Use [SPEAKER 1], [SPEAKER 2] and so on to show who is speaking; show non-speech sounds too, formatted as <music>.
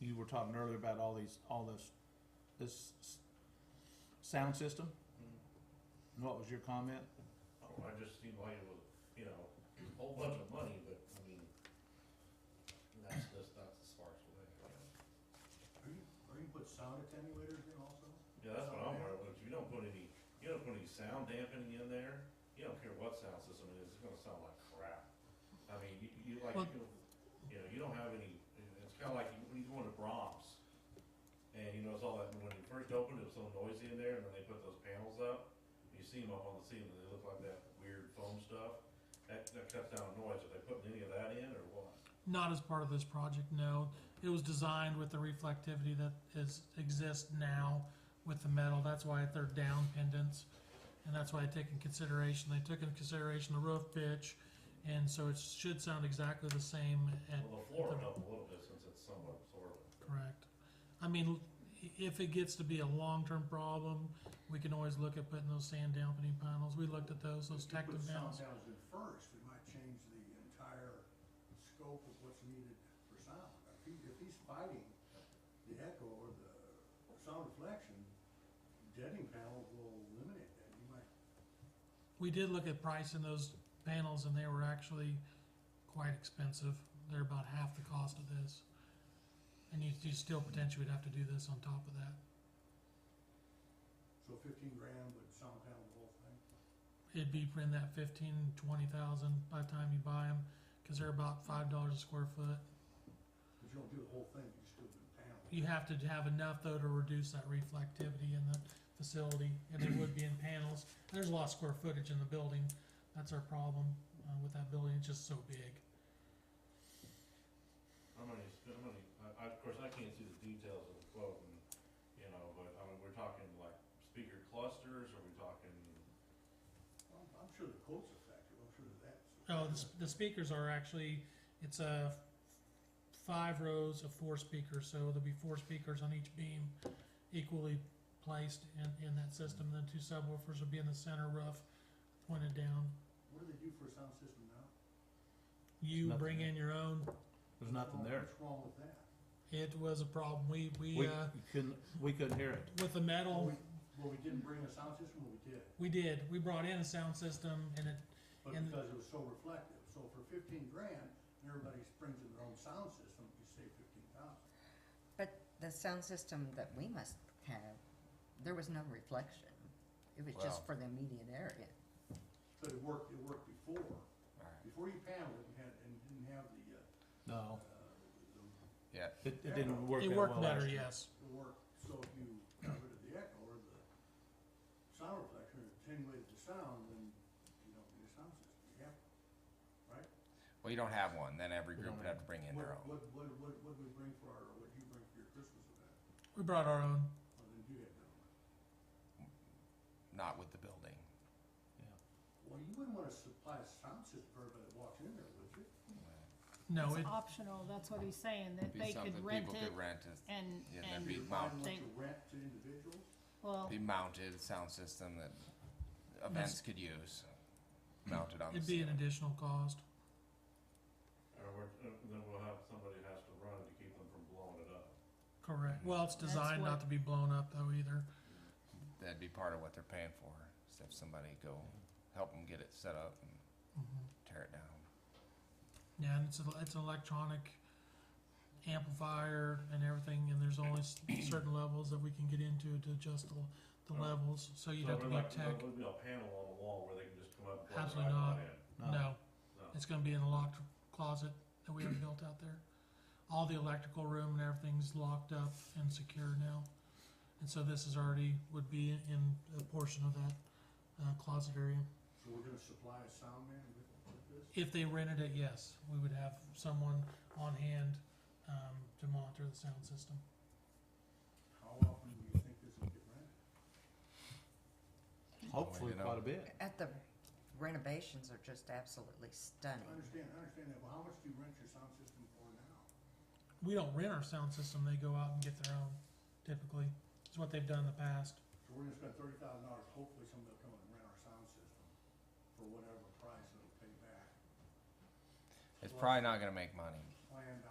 [SPEAKER 1] you were talking earlier about all these, all this, this s- sound system. And What was your comment?
[SPEAKER 2] Oh, I just seem like it was, you know, a whole bunch of money, but, I mean, that's, that's, that's the sparse way.
[SPEAKER 3] Are you, are you put sound attenuators in also?
[SPEAKER 2] Yeah, that's what I'm worried about, you don't put any, you don't put any sound dampening in there, you don't care what sound system it is, it's gonna sound like crap. I mean, you, you like,
[SPEAKER 1] Well-
[SPEAKER 2] you know, you know, you don't have any, it's kinda like when you go into Brahms, and you notice all that, when you first opened, it was so noisy in there, and then they put those panels up, and you see them up on the ceiling, and they look like that weird foam stuff, that, that cuts down noise, are they putting any of that in, or what?
[SPEAKER 4] Not as part of this project, no. It was designed with the reflectivity that is, exists now with the metal. That's why they're down pendants. And that's why I take in consideration, they took into consideration the roof pitch. And so it should sound exactly the same at,
[SPEAKER 2] Well, the floor
[SPEAKER 4] the-
[SPEAKER 2] would help a little bit since it's somewhat absorbent.
[SPEAKER 4] correct. I mean, if it gets to be a long-term problem, we can always look at putting those sand dampening panels. We looked at those, those
[SPEAKER 3] If you
[SPEAKER 4] tactive
[SPEAKER 3] put sound
[SPEAKER 4] panels.
[SPEAKER 3] panels in first, it might change the entire scope of what's needed for sound. If he, if he's fighting the echo or the sound reflection, deadening panel will eliminate that. You might,
[SPEAKER 4] We did look at pricing those panels and they were actually quite expensive. They're about half the cost of this. And you, you still potentially would have to do this on top of that.
[SPEAKER 3] so fifteen grand would sound panel the whole thing.
[SPEAKER 4] It'd be in that fifteen, twenty thousand by the time you buy them, cause they're about five dollars a square foot.
[SPEAKER 3] But you don't do the whole thing, you just do the panel.
[SPEAKER 4] You have to have enough though to reduce that reflectivity in the facility, and it would be in panels. There's a lot of square footage in the building. That's our problem, uh, with that building. It's just so big.
[SPEAKER 2] How many, how many, I, I, of course, I can't see the details of the quote and, you know, but, I mean, we're talking like speaker clusters, are we talking?
[SPEAKER 3] I'm, I'm sure the quote's effective, I'm sure that that's.
[SPEAKER 4] Oh, the, sp- the speakers are actually, it's a five rows of four speakers, so there'll be four speakers on each beam equally placed in, in that system, and then two subwoofers will be in the center roof pointed down.
[SPEAKER 3] What do they do for a sound system now?
[SPEAKER 4] You
[SPEAKER 1] Nothing.
[SPEAKER 4] bring in your own,
[SPEAKER 1] There's nothing there.
[SPEAKER 3] What's wrong with that?
[SPEAKER 4] it was a problem, we,
[SPEAKER 1] We
[SPEAKER 4] we, uh,
[SPEAKER 1] you couldn't, we couldn't hear it.
[SPEAKER 4] with the
[SPEAKER 3] Well,
[SPEAKER 4] metal,
[SPEAKER 3] we, well, we didn't bring a sound system, well, we did.
[SPEAKER 4] we did, we brought in a sound system, and it,
[SPEAKER 3] But
[SPEAKER 4] And-
[SPEAKER 3] because it was so reflective, so for fifteen grand, and everybody springs in their own sound system, you save fifteen thousand.
[SPEAKER 5] The sound system that we must have, there was no reflection. It was just
[SPEAKER 6] Wow.
[SPEAKER 5] for the immediate area.
[SPEAKER 3] But it worked, it worked before,
[SPEAKER 6] Alright.
[SPEAKER 3] before you paneled it and had, and didn't have the, uh,
[SPEAKER 1] No,
[SPEAKER 3] uh, the,
[SPEAKER 6] Yeah,
[SPEAKER 1] it, it didn't work
[SPEAKER 4] it
[SPEAKER 1] that
[SPEAKER 4] worked
[SPEAKER 1] well
[SPEAKER 4] better,
[SPEAKER 1] actually.
[SPEAKER 4] yes.
[SPEAKER 3] the work, so if you got rid of the echo or the sound reflection, or attenuated the sound, then you don't need a sound system, you have.
[SPEAKER 6] well, you don't have one, then every
[SPEAKER 1] We don't
[SPEAKER 6] group would
[SPEAKER 1] have-
[SPEAKER 6] have to bring in
[SPEAKER 3] What,
[SPEAKER 6] their own.
[SPEAKER 3] what, what, what, what do we bring for our, what do you bring for your Christmas event,
[SPEAKER 4] We brought our own,
[SPEAKER 3] or then you had none?
[SPEAKER 6] Not with the building.
[SPEAKER 3] Well, you wouldn't wanna supply a sound system for everybody that walks in there, would you?
[SPEAKER 4] no, it,
[SPEAKER 7] It's optional, that's what he's saying, that
[SPEAKER 6] Be
[SPEAKER 7] they
[SPEAKER 6] something
[SPEAKER 7] could rent
[SPEAKER 6] people
[SPEAKER 7] it
[SPEAKER 6] could rent. is-
[SPEAKER 7] and,
[SPEAKER 6] Yeah, that'd
[SPEAKER 7] and,
[SPEAKER 6] be
[SPEAKER 3] You're finding
[SPEAKER 7] they-
[SPEAKER 3] what you rent to individuals?
[SPEAKER 7] well,
[SPEAKER 6] Be mounted sound system that events could use. Mounted on the
[SPEAKER 4] it'd be an
[SPEAKER 6] ceiling.
[SPEAKER 4] additional cost.
[SPEAKER 2] Or we're, uh, then we'll have, somebody has to run it to keep them from blowing it up.
[SPEAKER 4] Correct. Well, it's
[SPEAKER 7] That's
[SPEAKER 4] designed not
[SPEAKER 7] what-
[SPEAKER 4] to be blown up though either.
[SPEAKER 6] That'd be part of what they're paying for. Is to have somebody go help them get it set up and
[SPEAKER 4] Mhm.
[SPEAKER 6] tear it down.
[SPEAKER 4] Yeah, and it's a, it's an electronic amplifier and everything, and there's only
[SPEAKER 2] <clears throat>
[SPEAKER 4] s- certain levels that we can get into to adjust the, the
[SPEAKER 2] Oh.
[SPEAKER 4] levels. So you'd
[SPEAKER 2] So
[SPEAKER 4] have to
[SPEAKER 2] we're
[SPEAKER 4] be
[SPEAKER 2] like-
[SPEAKER 4] tech.
[SPEAKER 2] There would be a panel on the wall where they can just come up and plug their
[SPEAKER 4] Absolutely not.
[SPEAKER 2] iPod in.
[SPEAKER 4] No,
[SPEAKER 2] No.
[SPEAKER 4] it's going to be in a locked closet that
[SPEAKER 2] <clears throat>
[SPEAKER 4] we have built out there. All the electrical room and everything's locked up and secure now, and so this is already would be in a portion of that uh, closet area.
[SPEAKER 3] So we're gonna supply a sound man with, with this?
[SPEAKER 4] If they rented it, yes, we would have someone on hand um, to monitor the sound system.
[SPEAKER 3] How often do you think this will get rented?
[SPEAKER 1] Hopefully
[SPEAKER 6] You know.
[SPEAKER 1] quite a bit.
[SPEAKER 5] At the renovations are just absolutely
[SPEAKER 3] I
[SPEAKER 5] stunning.
[SPEAKER 3] understand, I understand that, but how much do you rent your sound system for now?
[SPEAKER 4] We don't rent our sound system, they go out and get their own, typically. It's what they've done in the past.
[SPEAKER 3] So we're gonna spend thirty thousand dollars, hopefully somebody will come and rent our sound system for whatever price it'll pay back,
[SPEAKER 6] It's probably not going to make money.
[SPEAKER 3] planned